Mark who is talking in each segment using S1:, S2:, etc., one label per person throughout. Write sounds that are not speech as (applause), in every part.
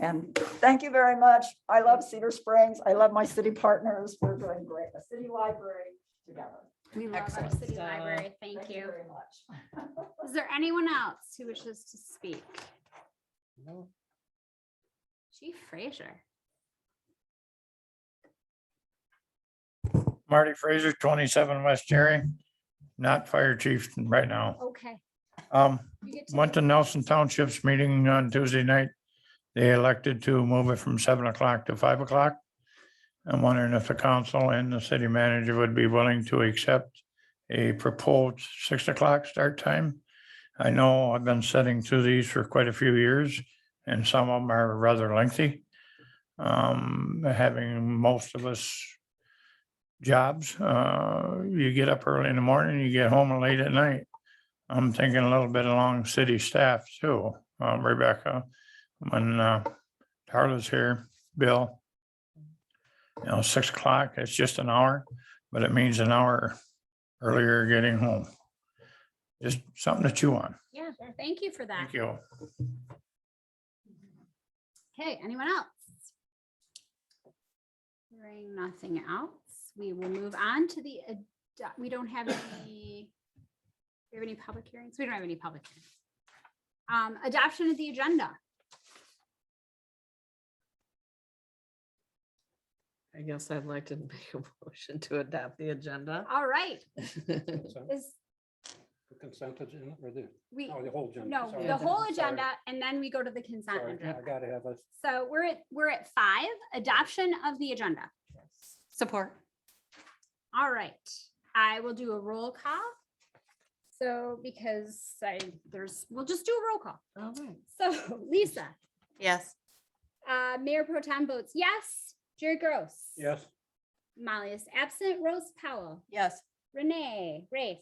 S1: And thank you very much. I love Cedar Springs. I love my city partners. We're doing great, the city library together.
S2: We love our
S1: Excellent.
S2: city library. uh, Thank you.
S1: Very much.
S2: Is there anyone else who wishes to speak?
S3: No.
S2: Chief Frazier.
S3: Marty Fraser, twenty-seven West Jerry, not fire chief right now.
S2: Okay.
S3: Um,
S2: You get to-
S3: went to Nelson Township's meeting on Tuesday night. They elected to move it from seven o'clock to five o'clock. I'm wondering if the council and the city manager would be willing to accept a proposed six o'clock start time. I know I've been sitting through these for quite a few years and some of them are rather lengthy. Um, having most of us jobs, uh, you get up early in the morning, you get home late at night. I'm thinking a little bit along city staff too, um, Rebecca, when uh, Tarla's here, Bill. You know, six o'clock, it's just an hour, but it means an hour earlier getting home. Just something to chew on.
S2: Yeah, thank you for that.
S3: Thank you.
S2: Okay, anyone else? Hearing nothing else, we will move on to the, ad- we don't have any, do we have any public hearings? We don't have any public. hearings. Um, adoption of the agenda.
S4: I guess I'd like to (laughs) make a motion to adopt the (laughs) agenda.
S2: All right,
S5: Consent-
S2: is,
S5: the Consent agenda or the,
S2: we,
S5: oh, the whole agenda.
S2: no,
S5: sorry.
S2: the whole
S5: Sorry,
S2: agenda, and then we go to the consent
S5: sorry,
S2: agenda.
S5: I gotta have us,
S2: So we're at, we're at five, adoption of the agenda.
S6: Support.
S2: All right, I will do a roll call. So because I, there's, we'll just do a roll call.
S4: All right.
S2: So (laughs) Lisa,
S6: Yes.
S2: uh, Mayor Pro Tem votes yes. Jerry Gross.
S5: yes,
S2: Molly is absent. Rose Powell,
S6: Yes.
S2: Renee Race.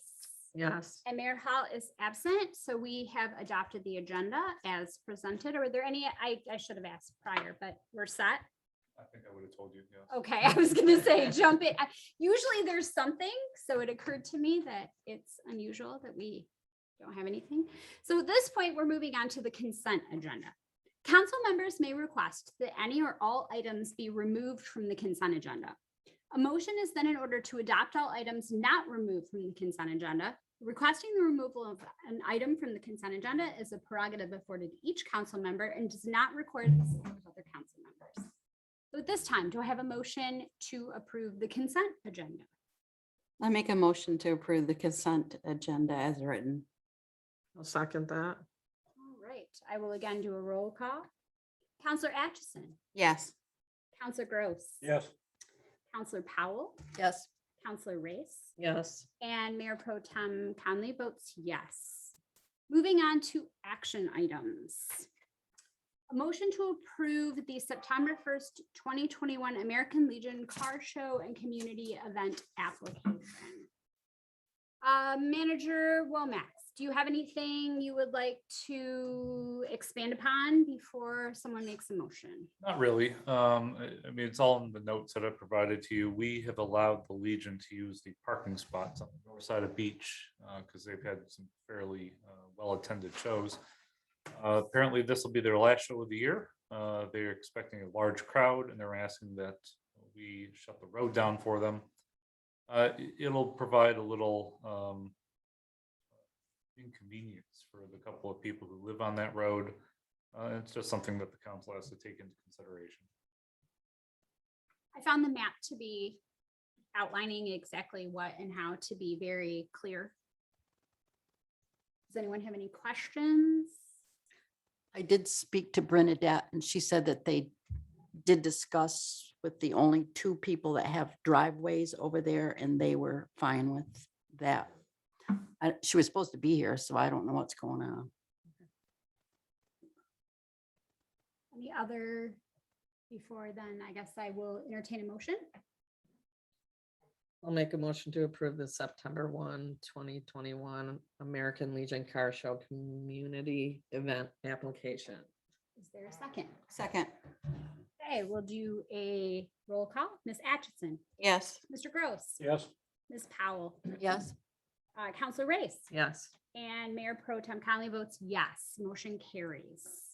S4: Yes,
S2: And Mayor Hall is absent, so we have adopted the agenda as presented. Are there any, I, I should have asked prior, but we're set.
S7: I think I would have told you, yes.
S2: Okay, I was gonna say jump it. I- Usually there's something, so it occurred to me that it's unusual that we don't have anything. So at this point, we're moving on to the consent agenda. Council members may request that any or all items be removed from the consent agenda. A motion is then in order to adopt all items not removed from the consent agenda. Requesting the removal of an item from the consent agenda is a prerogative afforded each council member and does not require the support of other council members. So at this time, do I have a motion to approve the consent agenda?
S6: I make a motion to approve the consent agenda as written.
S4: I'll second that.
S2: All right, I will again do a roll call. Counselor Atchison,
S6: Yes.
S2: Counselor Gross.
S5: yes,
S2: Counselor Powell,
S6: Yes.
S2: Counselor Race,
S4: Yes,
S2: and Mayor Pro Tem Conley votes yes. Moving on to action items. A motion to approve the September first, twenty twenty-one American Legion Car Show and Community Event application. Uh, Manager Womack, do you have anything you would like to expand upon before someone makes a motion?
S7: Not really. Um, I, I mean, it's all in the notes that I provided to you. We have allowed the Legion to use the parking spots on the north side of beach, uh, because they've had some fairly, uh, well-attended shows. Uh, apparently this will be their last show of the year. Uh, they're expecting a large crowd and they're asking that we shut the road down for them. Uh, i- it'll provide a little, um, inconvenience for the couple of people who live on that road. Uh, it's just something that the council has to take into consideration.
S2: I found the map to be outlining exactly what and how to be very clear. Does anyone have any questions?
S6: I did speak to Bernadette and she said that they did discuss with the only two people that have driveways over there and they were fine with that. I- She was supposed to be here, so I don't know what's going on.
S2: Any other before then, I guess I will entertain a motion.
S4: I'll make a motion to approve the September 1, 2021 American Legion Car Show Community Event Application.
S2: Is there a second?
S6: Second.
S2: Okay, we'll do a roll call. Ms. Atchison,
S6: Yes.
S2: Mr. Gross,
S5: yes,
S2: Ms. Powell,
S6: Yes.
S2: uh, Counselor Race,
S4: Yes,
S2: and Mayor Pro Tem Conley votes yes. Motion carries.